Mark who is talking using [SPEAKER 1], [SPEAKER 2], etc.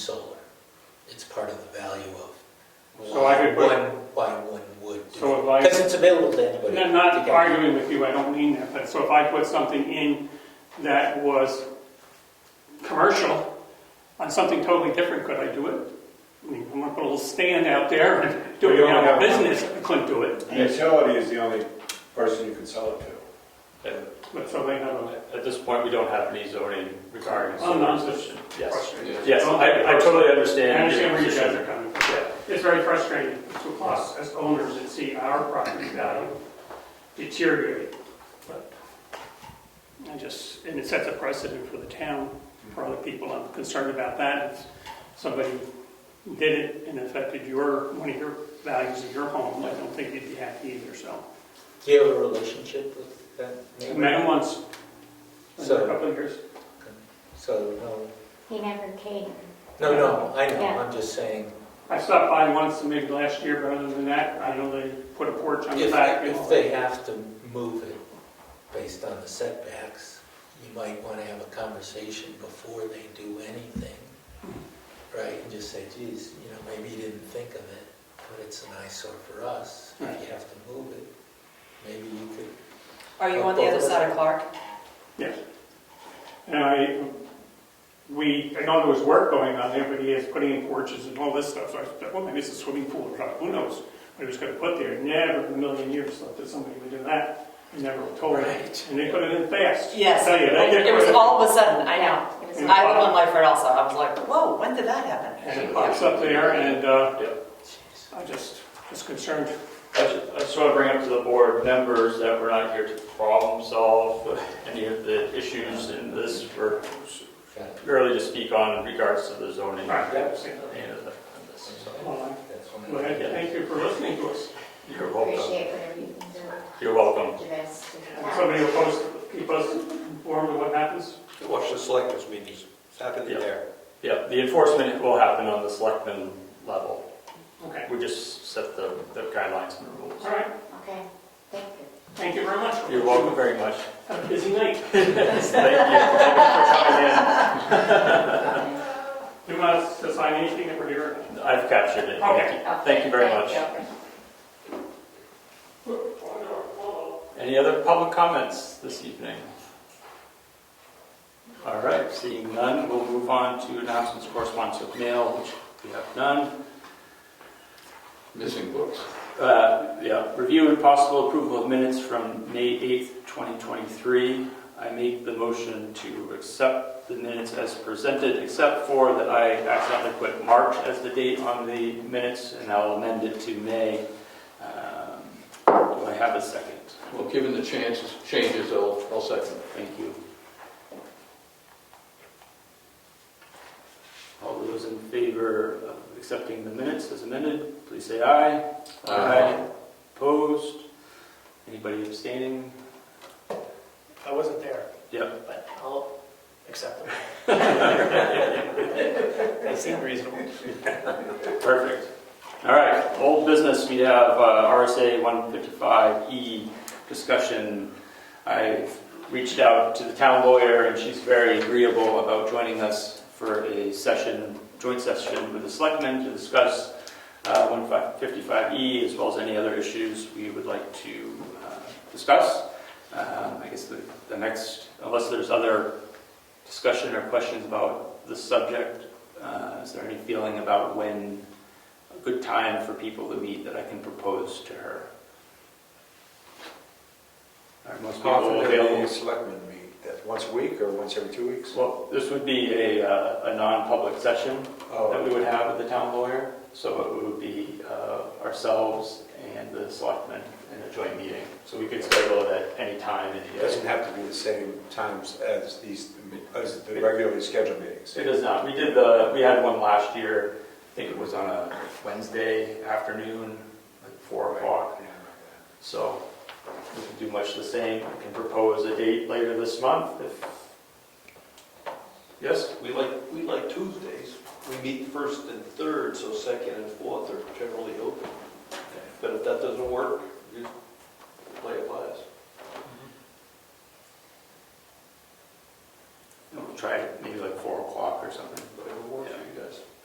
[SPEAKER 1] part of the value of
[SPEAKER 2] So I
[SPEAKER 1] why
[SPEAKER 2] could put-
[SPEAKER 1] one, why one would do
[SPEAKER 2] So
[SPEAKER 1] it.
[SPEAKER 2] if I-
[SPEAKER 1] Because it's available to anybody.
[SPEAKER 2] And I'm
[SPEAKER 1] to
[SPEAKER 2] not
[SPEAKER 1] get.
[SPEAKER 2] arguing with you, I don't mean that, but so if I put something in that was commercial on something totally different, could I do it? I mean, I'm gonna put a little stand out there and do
[SPEAKER 3] Well, you
[SPEAKER 2] it
[SPEAKER 3] only
[SPEAKER 2] out of
[SPEAKER 3] have-
[SPEAKER 2] business, I couldn't do it,
[SPEAKER 3] The Utility is the only person you can sell it to.
[SPEAKER 4] And
[SPEAKER 2] but so they have a
[SPEAKER 4] At this point, we don't have any zoning regarding
[SPEAKER 2] Oh,
[SPEAKER 4] solar
[SPEAKER 2] no.
[SPEAKER 4] position. Yes.
[SPEAKER 2] question.
[SPEAKER 4] Yes, I, I totally
[SPEAKER 2] I
[SPEAKER 4] understand.
[SPEAKER 2] understand where you guys
[SPEAKER 4] your
[SPEAKER 2] are coming from. It's very frustrating to us as owners to see our property value deteriorate. But I just, and it sets a precedent for the town, for other people. I'm concerned about that. If somebody did it and affected your, one of your values of your home, I don't think you'd be happy either, so.
[SPEAKER 1] Do you have a relationship with that neighbor?
[SPEAKER 2] Man once, in a
[SPEAKER 1] So-
[SPEAKER 2] couple of years.
[SPEAKER 1] So, no,
[SPEAKER 5] He never came.
[SPEAKER 1] no, no, I know,
[SPEAKER 5] Yeah.
[SPEAKER 1] I'm just saying,
[SPEAKER 2] I stopped by once, maybe last year, but other than that, I know they put a porch on the
[SPEAKER 1] if,
[SPEAKER 2] back. and all
[SPEAKER 1] if
[SPEAKER 2] that.
[SPEAKER 1] they have to move it based on the setbacks, you might want to have a conversation before they do anything, right? And just say, geez, you know, maybe you didn't think of it, but it's an eyesore for us. If you have to move it, maybe you could
[SPEAKER 6] Are you on the other side of Clark?
[SPEAKER 2] Yes. And I, we, I know there was work going on there, but he is putting in porches and all this stuff, so I thought, well, maybe it's a swimming pool or something, who knows? What he was gonna put there, never in a million years thought that somebody would do that, I never told him.
[SPEAKER 1] Right.
[SPEAKER 2] And they put it in fast.
[SPEAKER 6] Yes.
[SPEAKER 2] Tell you, they get
[SPEAKER 6] It was
[SPEAKER 2] rid of-
[SPEAKER 6] all of a sudden, I know.
[SPEAKER 5] It was
[SPEAKER 2] Yeah.
[SPEAKER 6] I live on Lifer also, I was like, whoa, when did that happen?
[SPEAKER 2] And it pops up there, and, uh, I just was concerned.
[SPEAKER 4] I ju- I just want to bring up to the board members that we're not here to problem solve any of the issues in this. We're
[SPEAKER 1] Got it.
[SPEAKER 4] merely to speak on in regards to the zoning.
[SPEAKER 2] Right.
[SPEAKER 4] And the- and this, so.
[SPEAKER 2] Well,
[SPEAKER 1] That's one
[SPEAKER 2] I'm
[SPEAKER 1] of the-
[SPEAKER 2] glad, thank you for listening to us.
[SPEAKER 4] You're welcome.
[SPEAKER 5] Appreciate whatever you can do.
[SPEAKER 4] You're welcome.
[SPEAKER 5] You guys do that.
[SPEAKER 2] Somebody will post, keep us informed of what happens.
[SPEAKER 7] Watch the selectmen's meetings, it's happening
[SPEAKER 4] Yeah.
[SPEAKER 7] there.
[SPEAKER 4] Yeah, the enforcement will happen on the selectmen level.
[SPEAKER 2] Okay,
[SPEAKER 4] We just set the the guidelines and rules.
[SPEAKER 2] all right,
[SPEAKER 5] Okay, thank you.
[SPEAKER 2] thank you very much.
[SPEAKER 4] You're welcome very much.
[SPEAKER 2] Have a busy night.
[SPEAKER 4] Thank you. Thank you for coming in.
[SPEAKER 2] Do you want us to sign anything that we're here?
[SPEAKER 4] I've captured it.
[SPEAKER 2] Okay.
[SPEAKER 4] Thank you very much.
[SPEAKER 5] Thank you.
[SPEAKER 4] Any other public comments this evening? All right, seeing none, we'll move on to announcements, correspondence with mail, which we have none.
[SPEAKER 8] missing books.
[SPEAKER 4] Uh, Yeah, review and possible approval of minutes from May 8th, 2023. I make the motion to accept the minutes as presented, except for that I accidentally put March as the date on the minutes, and I'll amend it to May. Um, Do I have a second?
[SPEAKER 8] Well, given the chances, changes, I'll, I'll second.
[SPEAKER 4] Thank you. All those in favor of accepting the minutes as amended, please say aye.
[SPEAKER 8] Aye.
[SPEAKER 4] Opposed? Anybody abstaining?
[SPEAKER 9] I wasn't there,
[SPEAKER 4] Yep.
[SPEAKER 9] but I'll accept them. They seem reasonable.
[SPEAKER 4] Perfect. All right, old business, we have uh, RSA 155E E discussion. I reached out to the town lawyer, and she's very agreeable about joining us for a session, joint session with the selectmen to discuss uh, 155E E, as well as any other issues we would like to uh, discuss. Um, I guess the the next, unless there's other discussion or questions about the subject, uh, Is there any feeling about when a good time for people to meet that I can propose to her? Are most people
[SPEAKER 7] Often the
[SPEAKER 4] available?
[SPEAKER 7] selectmen meet, that's once a week or once every two weeks?
[SPEAKER 4] Well, this would be a, uh, a non-public session
[SPEAKER 7] Uh,
[SPEAKER 4] that we would have with the town lawyer. So it would be uh, ourselves and the selectmen in a joint meeting. So we could schedule it at any time in
[SPEAKER 7] It
[SPEAKER 4] the
[SPEAKER 7] doesn't have to be the same times as these, as the regularly scheduled meetings.
[SPEAKER 4] It does not. We did the, we had one last year, I think it was on a Wednesday afternoon, like four o'clock. So we can do much the same. I can propose a date later this month if, yes?
[SPEAKER 7] We like, we like Tuesdays, we meet first and third, so second and fourth are generally open. But if that doesn't work, you play it by us.